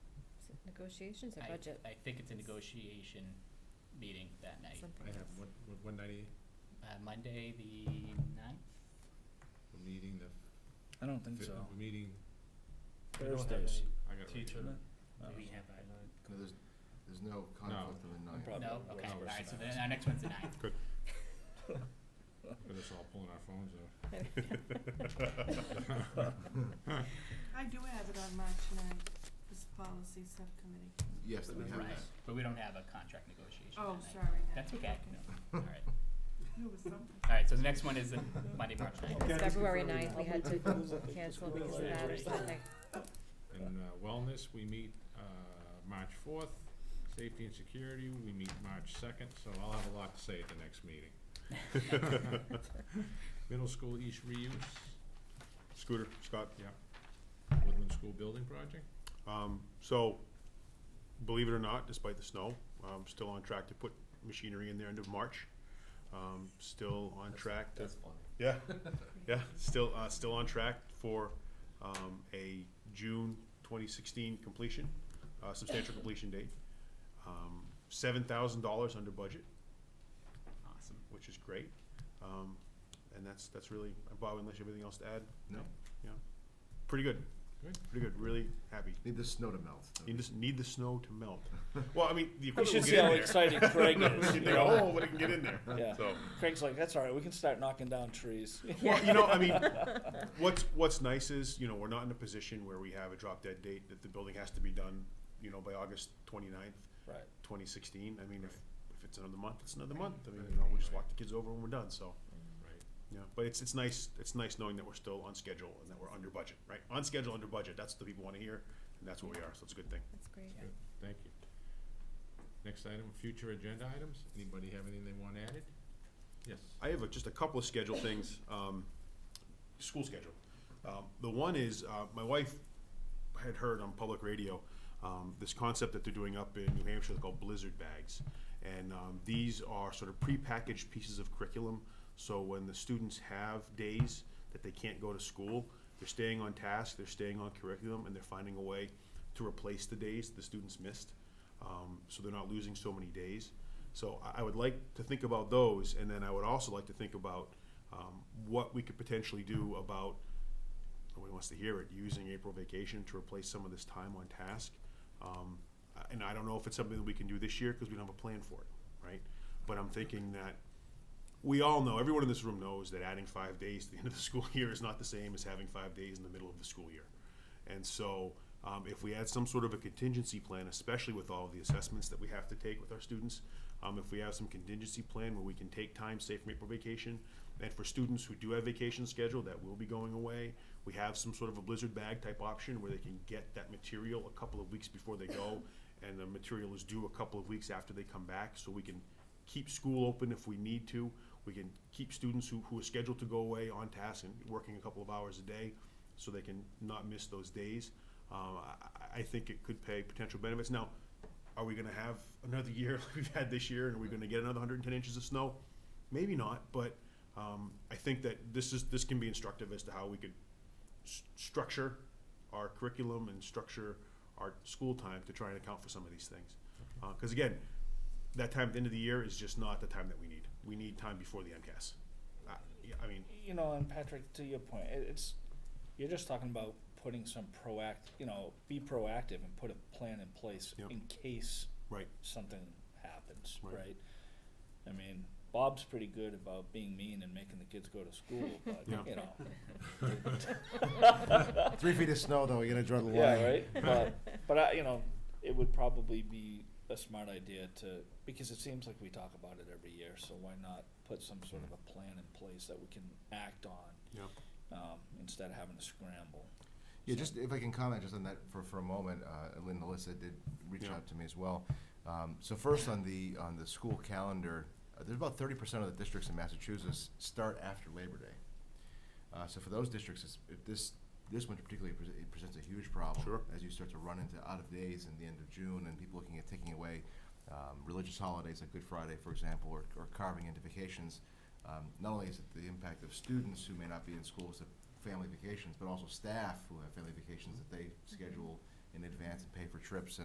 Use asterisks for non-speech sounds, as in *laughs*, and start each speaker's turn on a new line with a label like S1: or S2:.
S1: negotiations or
S2: I-
S1: budget?
S2: I think it's a negotiation meeting that night,
S1: Something
S3: I have
S1: else.
S3: one, one- one ninety,
S2: uh, Monday, the ninth?
S3: we're meeting the,
S4: I don't think
S3: fi-
S4: so.
S3: we're meeting,
S4: Thursdays.
S3: I got it. right here.
S2: Do
S4: Oh.
S2: we have a,
S5: No, there's, there's no conflict on the ninth.
S4: Probably
S2: no,
S4: works
S2: okay,
S3: worse
S2: alright, so then
S4: than
S2: *laughs*
S4: ours.
S2: our next one's the ninth,
S3: We're just all pulling our phones out.
S2: *laughs*
S6: I do have it on March ninth, this policy subcommittee.
S5: Yes, we have
S2: right, *laughs*
S5: that.
S2: but we don't have a contract negotiation that
S6: Oh,
S2: night.
S6: sorry, no.
S2: That's okay, no, alright,
S6: It was something.
S2: alright, so the next one is the Monday, March ninth,
S1: It's
S7: Yeah, just
S1: February
S7: confirm
S1: ninth, we had to cancel because of that or something.
S3: And uh, wellness, we meet uh, March fourth. Safety and security, we meet March second, so I'll have a lot to say at the next
S2: *laughs*
S3: *laughs* meeting. *laughs* Middle school east reuse,
S7: Scooter, Scott,
S3: yeah. Woodland School Building Project,
S7: um, so, believe it or not, despite the snow, I'm still on track to put machinery in there end of March. Um, still on track to,
S5: That's funny. *laughs*
S7: yeah, yeah, still, uh, still on track for, um, a June twenty sixteen completion, uh, substantial completion date. Um, seven thousand dollars under budget,
S2: awesome,
S7: which is great. Um, and that's, that's really, Bob, unless you have anything else to add,
S5: No,
S7: pretty good.
S3: Good.
S7: Pretty good, really happy.
S5: need the snow to melt.
S7: You just need the snow to melt. Well, I mean, the
S4: We
S7: equipment
S4: should
S7: will
S4: see
S7: get
S4: how
S7: in there. *laughs*
S4: excited Craig is,
S7: You
S4: you
S7: think,
S4: know?
S7: oh, but it can get in there.
S4: Yeah.
S7: So,
S4: Craig's like, that's all right, we can start knocking down
S7: *laughs*
S4: trees.
S7: well, you know, I mean, what's what's nice is you know we're not in a position where we have a drop dead date that the building has to be done, you know, by August 29th,
S4: Right.
S7: 2016. I mean, if if it's another month, it's another month. I mean, you know, we just walk the kids over when we're done. So,
S3: right?
S7: yeah, but it's it's nice it's nice knowing that we're still on schedule and that we're under budget, right? On schedule, under budget. That's what the people want to hear, and that's what we are. So it's a good thing.
S1: That's
S3: *laughs*
S1: great.
S2: Yeah.
S3: Good, thank you. Next item, future agenda items. Anybody have anything they want added? Yes.
S7: I have a, just a couple of schedule things, um, school schedule. Um, the one is, uh, my wife had heard on public radio, um, this concept that they're doing up in New Hampshire called blizzard bags. And, um, these are sort of prepackaged pieces of curriculum, so when the students have days that they can't go to school, they're staying on task, they're staying on curriculum, and they're finding a way to replace the days the students missed um, so they're not losing so many days. So I, I would like to think about those, and then I would also like to think about um, what we could potentially do about, nobody wants to hear it, using April vacation to replace some of this time on task. Um, I- and I don't know if it's something that we can do this year because we don't have a plan for it, right? But I'm thinking that we all know, everyone in this room knows that adding five days to the *laughs* end of the school year is not the same as having five days in the middle of the school year. And so, um, if we had some sort of a contingency plan, especially with all of the assessments that we have to take with our students, um, if we have some contingency plan where we can take time, say from April vacation, and for students who do have vacation scheduled that will be going away, we have some sort of a blizzard bag type option where they can get that material a couple of weeks before they go, and the material is due a couple of weeks after they come back, so we can keep school open if we need to. We can keep students who, who are scheduled to go away on task and working a couple of hours a day so they can not miss those days. Um, I, I- I think it could pay potential benefits. Now, are we gonna have another *laughs* year like we've had this year and are we gonna get another hundred and ten inches of snow? Maybe not, but, um, I think that this is, this can be instructive as to how we could s- structure our curriculum and structure our school time to try and account for some of these things. Uh 'cause cause again, that time at the end of the year is just not the time that we need. We need time before the MCAS. Uh, yeah, I mean,
S4: You know, and Patrick, to your point, it, it's, you're just talking about putting some proact, you know, be proactive and put a plan in place
S7: Yep.
S4: in case
S7: right,
S4: something happens,
S7: Right.
S4: right? I mean, Bob's pretty good about being mean and making the kids go to school, but,
S7: Yeah.
S4: you know,
S7: *laughs*
S4: *laughs*
S5: Three feet of snow, though, you're gonna draw the line.
S4: Yeah, right. But but I, you know, it would probably be a smart idea to because it seems like we talk about it every year. So why not put some sort of a plan in place that we can act on
S7: yeah.
S4: um, instead of having to scramble?
S5: Yeah, just if I can comment just on that for, for a moment, uh, Lynn and Alyssa did reach
S7: Yeah.
S5: out to me as well. Um, so first on the, on the school calendar, uh, there's about thirty percent of the districts in Massachusetts start after Labor Day. Uh, so for those districts, it's, it, this, this winter particularly, pres- it presents a huge problem.
S7: Sure.
S5: As you start to run into out of days in the end of June and people looking at taking away, um, religious holidays like Good Friday, for example, or, or carving into vacations. Um, not only is it the impact of students who may not be in schools to family vacations, but also staff who have family vacations that they schedule in advance and pay for trips and